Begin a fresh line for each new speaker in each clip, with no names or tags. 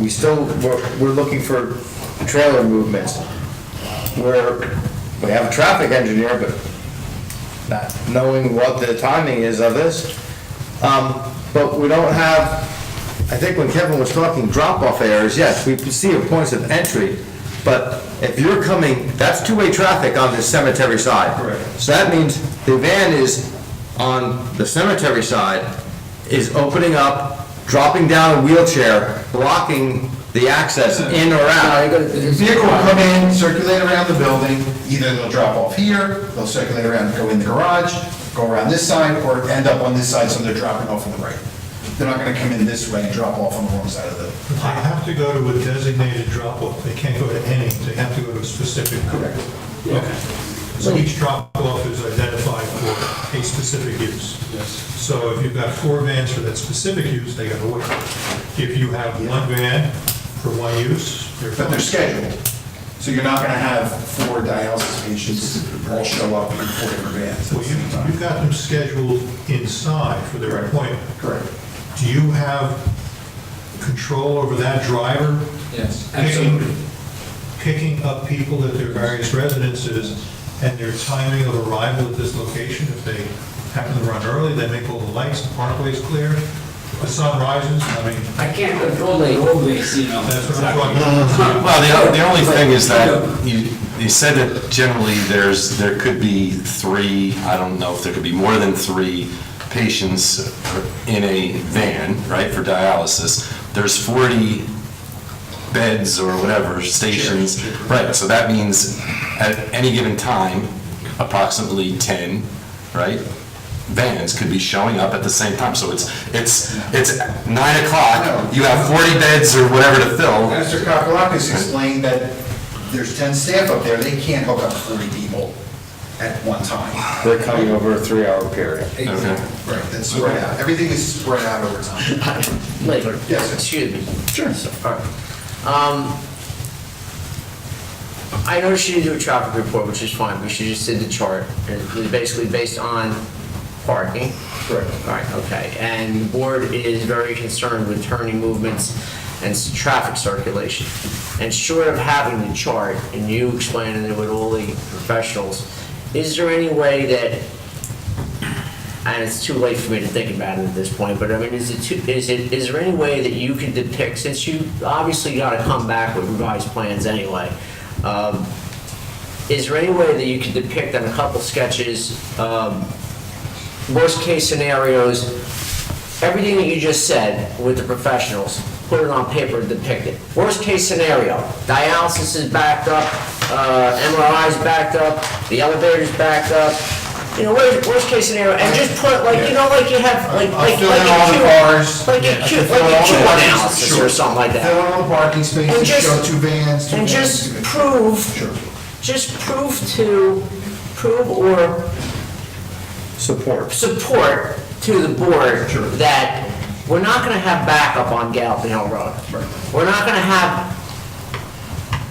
we still, we're, we're looking for trailer movements. We're, we have a traffic engineer, but not knowing what the timing is of this. Um, but we don't have, I think when Kevin was talking drop-off areas, yes, we see your points of entry, but if you're coming, that's two-way traffic on the cemetery side.
Correct.
So that means the van is on the cemetery side, is opening up, dropping down a wheelchair, blocking the access in or out.
Vehicle will come in, circulate around the building, either they'll drop off here, they'll circulate around, go in the garage, go around this side, or end up on this side, so they're dropping off on the right. They're not gonna come in this way and drop off on the wrong side of the,
They have to go to a designated drop-off, they can't go to any, they have to go to a specific. Correct. Okay. So each drop-off is identified for a specific use. Yes. So if you've got four vans for that specific use, they gotta wait. If you have one van for one use, they're.
but they're
fine.
scheduled. So you're not gonna have four dialysis patients all show up in four different vans at
Well,
the
you,
same
you've
time.
got them scheduled inside for their appointment.
Correct.
Do you have control over that driver?
Yes,
picking,
absolutely.
picking up people at their various residences and their timing of arrival at this location. If they happen to run early, they make all the lights, the parkway's clear, the sun rises, I mean,
I can't control the roadways, you know.
that's what I'm talking about.
Well, the, the only thing is that you, you said that generally there's, there could be three, I don't know if there could be more than three patients in a van, right, for dialysis. There's 40 beds or whatever, stations. Right, so that means at any given time, approximately 10, right, vans could be showing up at the same time. So it's, it's, it's 9 o'clock, you have 40 beds or whatever to fill.
Mr. Kakalakis explained that there's 10 staff up there, they can't hook up 40 people at one time.
They're coming over a three-hour period.
Okay.
Right, that's spread out, everything is spread out over time.
Later.
Yes, sir.
Excuse me. Sure. All right. Um, I noticed you didn't do a traffic report, which is fine, because you just did the chart, and it was basically based on parking.
Correct.
All right, okay. And the board is very concerned with turning movements and s- traffic circulation. And short of having the chart, and you explaining it with all the professionals, is there any way that and it's too late for me to think about it at this point, but I mean, is it too, is it, is there any way that you could depict, since you obviously gotta come back with revised plans anyway, um, is there any way that you could depict on a couple sketches, um, worst-case scenarios, everything that you just said with the professionals, put it on paper and depict it. Worst-case scenario, dialysis is backed up, uh, MRI is backed up, the elevator's backed up, you know, worst, worst-case scenario, and just put, like, you know, like you have, like,
I'll
like,
fill
like
in all the
a
cars.
Q, like
Yeah,
a
I
Q,
can fill
like
in
a
all
Q
the parking-
analysis
sure.
or something like
Fill
that.
in all the parking
And
spaces,
just-
show two vans, two
And
vans.
just
two vans. Sure.
prove, just prove to, prove or
Support.
support to the board
Sure.
that we're not gonna have backup on Gallatin Hill Road. We're not gonna have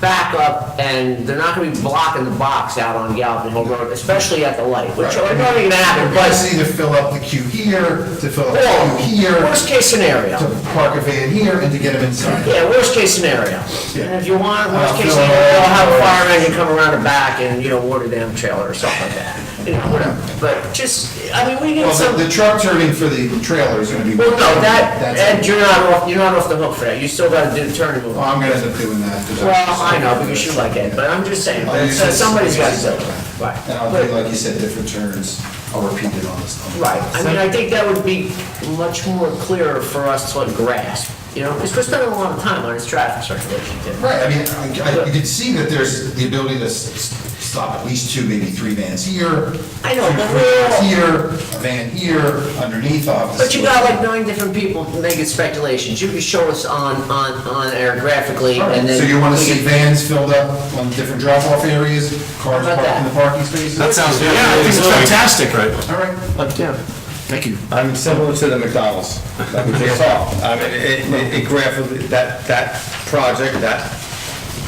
backup, and they're not gonna be blocking the box out on Gallatin Hill Road, especially at the light, which are probably gonna happen,
Everybody's
but,
either fill up the queue here, to fill up
or,
the queue here,
worst case scenario.
to park a van here, and to get them inside.
Yeah, worst case scenario.
Yeah.
And if you want, worst
I'll
case
fill it
scenario,
all
I'll have a
in.
fire engine come around the back and, you know, water down trailer or something like that. You know, whatever, but just, I mean, we need
Well,
some.
the- the truck turning for the trailer is gonna be.
Well, no, that,
That's-
Ed, you're not off, you're not off the hook for that, you still gotta do the turn move.
Well, I'm gonna end up doing that. 'cause
Well, I know, because you like Ed, but I'm just saying, but so somebody's gotta do it. Right.
And I'll do, like you said, different turns, I'll repeat it on this. on this.
Right, I mean, I think that would be much more clearer for us to like, grasp, you know, because we're spending a lot of time on this traffic circulation too.
Right, I mean, I, I- you can see that there's the ability to s- s- stop at least two, maybe three vans here.
I know,
two
but
vans
we're-
Here, a van here, underneath off. the
But you
store.
got like nine different people making speculations, you can show us on, on, on air graphically,
All right,
and then.
So you wanna
we
see
can-
vans filled up on different drop-off areas, cars
How about
parked in the
that?
parking spaces?
That sounds good.
Yeah, I think it's
fantastic. Right.
All right,
I'm similar to the McDonald's that we just saw. I mean, it, it- it graphically, that, that project, that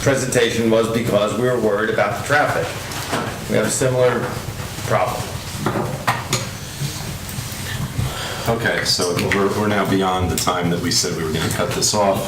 presentation was because we were worried about the traffic. We have a similar problem.
Okay, so we're, we're now beyond the time that we said we were gonna cut this off.